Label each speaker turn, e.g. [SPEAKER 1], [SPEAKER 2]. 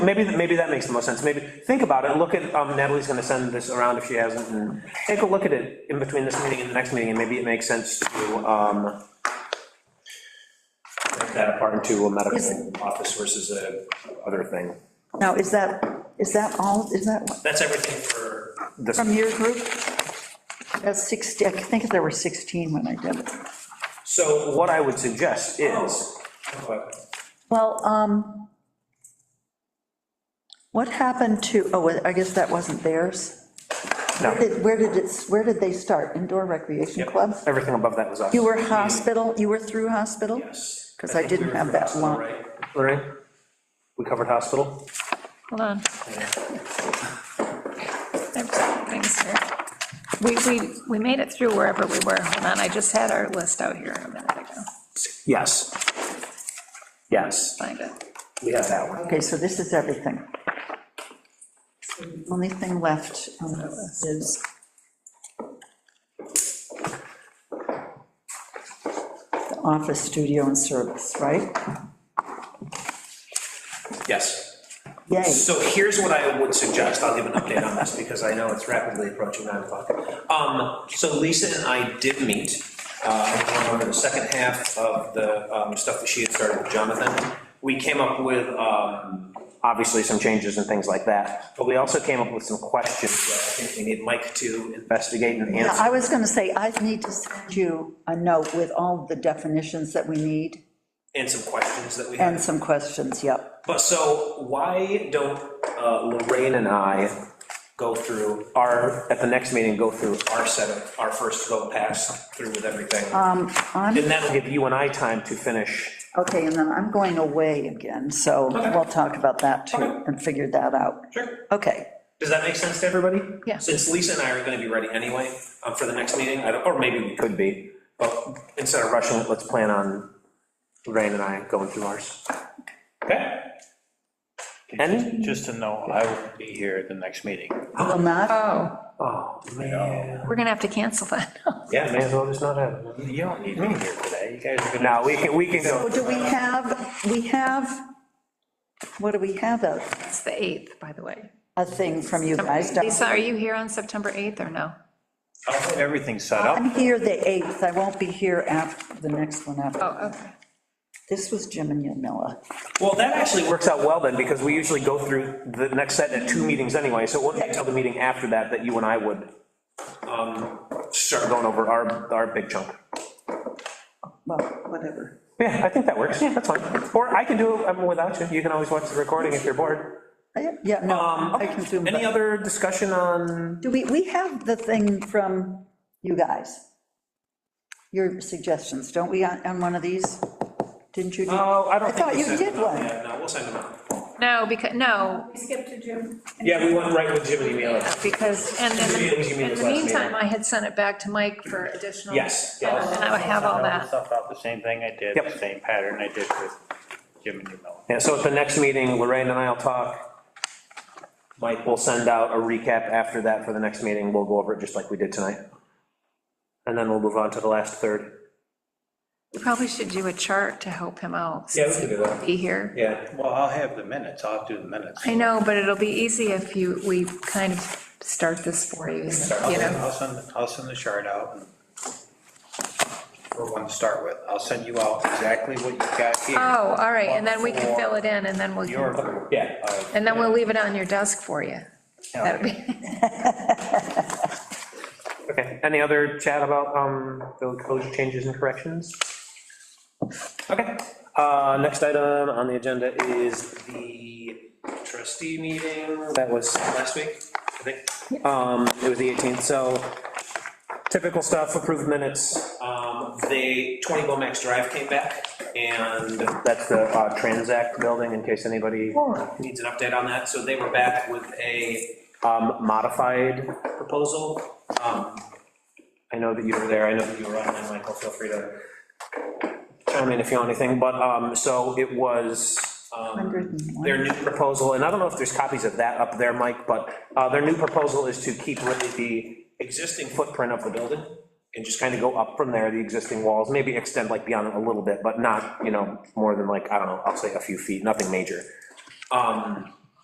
[SPEAKER 1] Maybe, maybe that makes the most sense, maybe, think about it, look at, um, Natalie's gonna send this around if she hasn't, and take a look at it in between this meeting and the next meeting, and maybe it makes sense to, um, break that apart into a medical
[SPEAKER 2] Is-
[SPEAKER 1] office versus a other thing.
[SPEAKER 2] Now, is that, is that all, is that what-
[SPEAKER 3] That's everything for,
[SPEAKER 1] This,
[SPEAKER 2] from your group? That's 60, I think there were 16 when I did it.
[SPEAKER 1] so what I would suggest is,
[SPEAKER 3] Oh,
[SPEAKER 2] Well, um, what happened to, oh, I guess that wasn't theirs.
[SPEAKER 1] no,
[SPEAKER 2] Did- Where did it, where did they start? Indoor recreation club?
[SPEAKER 1] everything above that was us,
[SPEAKER 2] You were hospital, you were through hospital?
[SPEAKER 3] yes.
[SPEAKER 2] 'Cause I didn't have that
[SPEAKER 3] Hospital,
[SPEAKER 2] one.
[SPEAKER 3] right?
[SPEAKER 1] right? We covered hospital,
[SPEAKER 4] Hold on. There's some things here. We, we, we made it through wherever we were. Hold on, I just had our list out here a minute ago.
[SPEAKER 1] yes. Yes,
[SPEAKER 4] Find it.
[SPEAKER 1] we have that one,
[SPEAKER 2] Okay, so this is everything. The Only thing left on the list is, the office, studio, and service, right?
[SPEAKER 3] Yes.
[SPEAKER 2] Yay.
[SPEAKER 3] So here's what I would suggest, I'll give an update on this, because I know it's rapidly approaching nine o'clock. Um, so Lisa and I did meet, uh, over the second half of the, um, stuff that she had started with Jonathan. We came up with, um,
[SPEAKER 1] obviously some changes and things like that, but we also came up with some questions that I think we need Mike to investigate and
[SPEAKER 2] Yeah,
[SPEAKER 1] answer.
[SPEAKER 2] I was going to say, I need to send you a note with all the definitions that we need
[SPEAKER 3] and some questions that we had.
[SPEAKER 2] and some questions, yep.
[SPEAKER 3] But so why don't uh,
[SPEAKER 1] Rain
[SPEAKER 3] Lorraine
[SPEAKER 1] and I
[SPEAKER 3] go through
[SPEAKER 1] are, at the next meeting, go through,
[SPEAKER 3] our set of, our first go pass through with everything?
[SPEAKER 2] Um, I'm,
[SPEAKER 1] and that'll give you and I time to finish.
[SPEAKER 2] okay, and then I'm going away again, so we'll talk about that too
[SPEAKER 3] Okay.
[SPEAKER 2] and figure that out.
[SPEAKER 3] Sure.
[SPEAKER 2] Okay,
[SPEAKER 3] Does that make sense to everybody?
[SPEAKER 4] Yeah.
[SPEAKER 3] Since Lisa and I are gonna be ready anyway um, for the next meeting, I don't, or maybe we could,
[SPEAKER 1] Could be,
[SPEAKER 3] but
[SPEAKER 1] instead of rushing it, let's plan on Rain and I going through ours.
[SPEAKER 3] okay.
[SPEAKER 1] And,
[SPEAKER 5] Just to know, I will be here at the next meeting.
[SPEAKER 2] will not,
[SPEAKER 4] Oh,
[SPEAKER 1] oh, man.
[SPEAKER 4] we're gonna have to cancel that.
[SPEAKER 1] Yeah, may as well just not have it.
[SPEAKER 5] You don't need me here for that, you guys are
[SPEAKER 1] No,
[SPEAKER 5] gonna.
[SPEAKER 1] we can, we can
[SPEAKER 2] so
[SPEAKER 1] go,
[SPEAKER 2] do we have, we have, what do we have, a,
[SPEAKER 4] It's the 8th, by the way.
[SPEAKER 2] a thing from you guys? don't-
[SPEAKER 4] Lisa, are you here on September 8th or no?
[SPEAKER 5] I'll have Everything set up.
[SPEAKER 2] I'm here the 8th, I won't be here after, the next one after.
[SPEAKER 4] Oh, okay.
[SPEAKER 2] This was Jim and Yamila.
[SPEAKER 3] Well, that actually
[SPEAKER 1] actually
[SPEAKER 3] worked,
[SPEAKER 1] works out well then, because we usually go through the next set at two meetings anyway, so it wouldn't be until the meeting after that that you and I would um, start
[SPEAKER 3] sure.
[SPEAKER 1] going over our, our big chunk.
[SPEAKER 2] Well, whatever.
[SPEAKER 1] Yeah, I think that works, yeah, that's fine. Or I can do it um, without you, you can always watch the recording if you're bored.
[SPEAKER 2] I- Yeah, no,
[SPEAKER 1] Um,
[SPEAKER 2] I can zoom.
[SPEAKER 1] Any
[SPEAKER 2] back.
[SPEAKER 1] other discussion on,
[SPEAKER 2] Do we, we have the thing from you guys? Your suggestions, don't we, on on one of these? Didn't you? do-
[SPEAKER 1] oh, I don't
[SPEAKER 2] I
[SPEAKER 1] think.
[SPEAKER 2] thought
[SPEAKER 1] we
[SPEAKER 2] you
[SPEAKER 1] said-
[SPEAKER 2] did one.
[SPEAKER 3] Yeah, no, we'll send them out.
[SPEAKER 4] No, because, no,
[SPEAKER 3] Yeah, we went right with Jim and Emile.
[SPEAKER 4] because, and in
[SPEAKER 3] You mean- you mean
[SPEAKER 4] the, in
[SPEAKER 3] this
[SPEAKER 4] the
[SPEAKER 3] last meeting?
[SPEAKER 4] meantime, I had sent it back to Mike for additional.
[SPEAKER 3] Yes,
[SPEAKER 4] And
[SPEAKER 3] yes.
[SPEAKER 4] I have all that.
[SPEAKER 5] Stuff out, the same thing I did,
[SPEAKER 1] Yep.
[SPEAKER 5] the same pattern I did with Jim and you, Mel.
[SPEAKER 1] Yeah, so at the next meeting, Lorraine and I'll talk. Mike will send out a recap after that for the next meeting, we'll go over it just like we did tonight. And then we'll move on to the last third.
[SPEAKER 4] You probably should do a chart to help him out.
[SPEAKER 3] Yeah, we can do that.
[SPEAKER 4] Be here.
[SPEAKER 3] Yeah,
[SPEAKER 5] Well, I'll have the minutes, I'll do the minutes.
[SPEAKER 4] I know, but it'll be easy if you, we kind of start this for you,
[SPEAKER 5] I'll
[SPEAKER 4] you
[SPEAKER 5] send,
[SPEAKER 4] know?
[SPEAKER 5] I'll send, I'll send the chart out and for one to start with. I'll send you out exactly what you've got here.
[SPEAKER 4] Oh, all right, and then we can fill it in, and then we'll,
[SPEAKER 5] Your group.
[SPEAKER 3] yeah.
[SPEAKER 4] and then we'll leave it on your desk for you. That'd be,
[SPEAKER 1] Okay, any other chat about, um, the closure changes and corrections? Okay, uh, next item on the agenda is the
[SPEAKER 3] Trustee meeting
[SPEAKER 1] That was
[SPEAKER 3] last week, I think.
[SPEAKER 1] Um, it was the 18th, so typical stuff, approved minutes,
[SPEAKER 3] Um, They, 20 Bomax Drive came back and
[SPEAKER 1] that's the uh, Transact building, in case anybody
[SPEAKER 3] needs an update on that. So they were back with a
[SPEAKER 1] um, modified.
[SPEAKER 3] proposal. Um,
[SPEAKER 1] I know that you were there, I know that you were online, Michael, feel free to chime in if you want anything, but, um, so it was, um,
[SPEAKER 2] 101.
[SPEAKER 1] their new proposal, and I don't know if there's copies of that up there, Mike, but, uh, their new proposal is to keep really the existing footprint of the building and just kind of go up from there, the existing walls, maybe extend like beyond it a little bit, but not, you know, more than like, I don't know, I'll say a few feet, nothing major.
[SPEAKER 3] um,